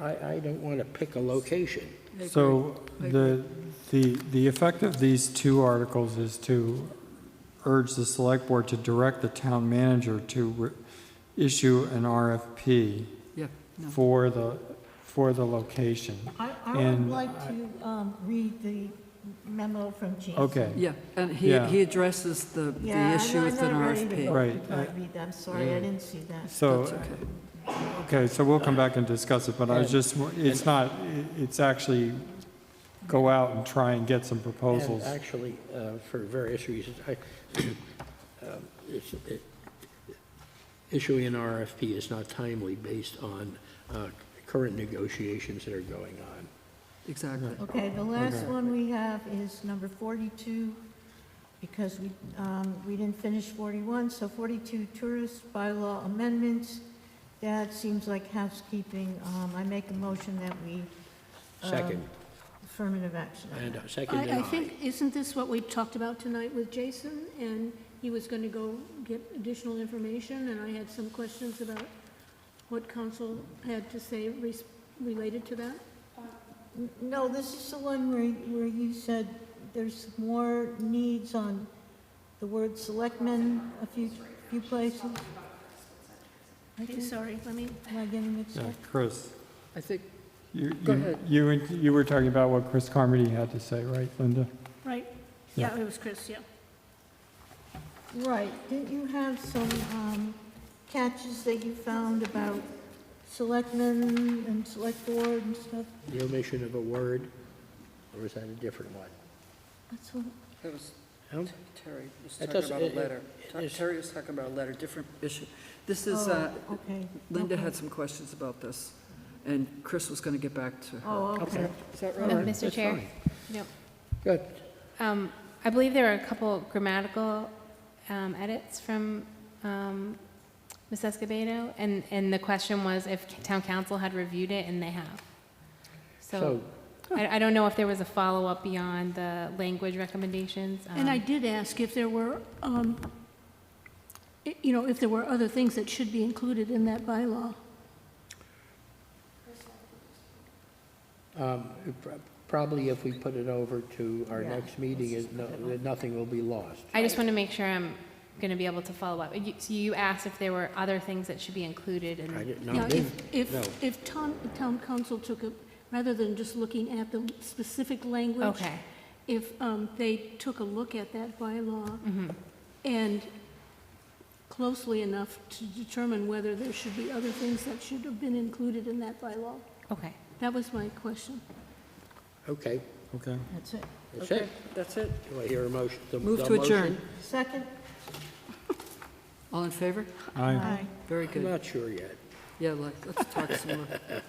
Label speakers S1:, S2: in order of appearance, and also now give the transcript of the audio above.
S1: I, I don't want to pick a location.
S2: I
S3: So
S2: agree. I
S3: the, the, the effect of these two articles is to urge the select board to direct the town manager to re- issue an RFP
S2: Yeah, no.
S3: for the, for the location.
S4: I, I would
S3: And
S4: like to um, read the memo from James.
S3: Okay,
S2: Yeah, and he,
S3: Yeah.
S2: he addresses the, the
S4: Yeah,
S2: issue
S4: I'm
S2: with an
S4: not- I'm not ready to
S2: RFP.
S4: vote
S3: Right,
S4: before I read that. I'm sorry, I didn't see that.
S3: so,
S2: That's okay.
S3: okay, so we'll come back and discuss it, but I was just, it's not, it- it's actually go out and try and get some
S1: And
S3: proposals.
S1: actually, uh, for various reasons, I, um, it's- it- issuing an RFP is not timely based on uh, current negotiations that are going on.
S2: Exactly.
S4: Okay, the last one we have is number 42, because we, um, we didn't finish 41, so 42 tourist bylaw amendments. That seems like housekeeping. Um, I make a motion that we
S1: Second,
S4: affirmative action. on
S1: and uh,
S4: that.
S1: second and
S5: I, I
S1: aye.
S5: think, isn't this what we talked about tonight with Jason? And he was going to go get additional information, and I had some questions about what council had to say res- related to that?
S4: No, this is the one where, where you said there's more needs on the word selectmen a few, few places. I
S5: I'm
S4: think-
S5: sorry, let me,
S4: Am I getting mixed
S3: Yeah,
S4: up?
S3: Chris,
S2: I think,
S3: you,
S2: Go
S3: you-
S2: ahead.
S3: you, were- you were talking about what Chris Carmody had to say, right, Linda?
S5: right, yeah, it was Chris, yeah.
S4: Right, didn't you have some um, catches that you found about selectmen and select board and stuff?
S1: The omission of a word, or is that a different one?
S4: That's what,
S6: That was,
S1: I don't-
S6: Terry was
S1: It
S6: talking
S1: doesn't-
S6: about a
S1: it- it-
S6: letter.
S1: it
S6: Ta-
S1: is-
S6: Terry was talking about a letter, different issue.
S2: this is, uh,
S4: oh, okay.
S2: Linda
S4: okay.
S2: had some questions about this, and Chris was going to get back to her.
S4: Oh, okay.
S2: Is that
S7: Uh,
S2: right?
S7: Mr.
S1: That's
S7: Chair?
S1: fine.
S7: Yep.
S1: Good.
S7: Um, I believe there are a couple grammatical um, edits from um, Ms. Escobedo, and, and the question was if town council had reviewed it, and they have.
S1: So,
S7: So I, I don't know if there was a follow-up beyond the language recommendations.
S5: And I
S7: um,
S5: did ask if there were, um, i- you know, if there were other things that should be included in that bylaw.
S1: um, pro- probably if we put it over to our
S4: Yeah.
S1: next meeting, it- no- nothing will be lost.
S7: I just want to make sure I'm going to be able to follow up. You- So you asked if there were other things that should be included,
S1: I
S7: and
S1: didn't-
S5: Now,
S1: no,
S5: if,
S1: didn't- no.
S5: if, if town, the town council took a, rather than just looking at the specific language.
S7: Okay.
S5: If um, they took a look at that bylaw and closely enough to determine whether there should be other things that should have been included in that bylaw.
S7: okay.
S5: That was my question.
S1: Okay,
S3: Okay.
S4: That's it.
S1: that's
S2: Okay,
S1: it.
S2: that's it.
S1: Do I hear a motion? the-
S2: Move
S1: the
S2: to adjourn.
S1: motion?
S4: Second?
S2: All in favor?
S3: Aye.
S4: Aye.
S2: Very
S1: I'm
S2: good.
S1: not sure yet.
S2: Yeah, let- let's talk some more.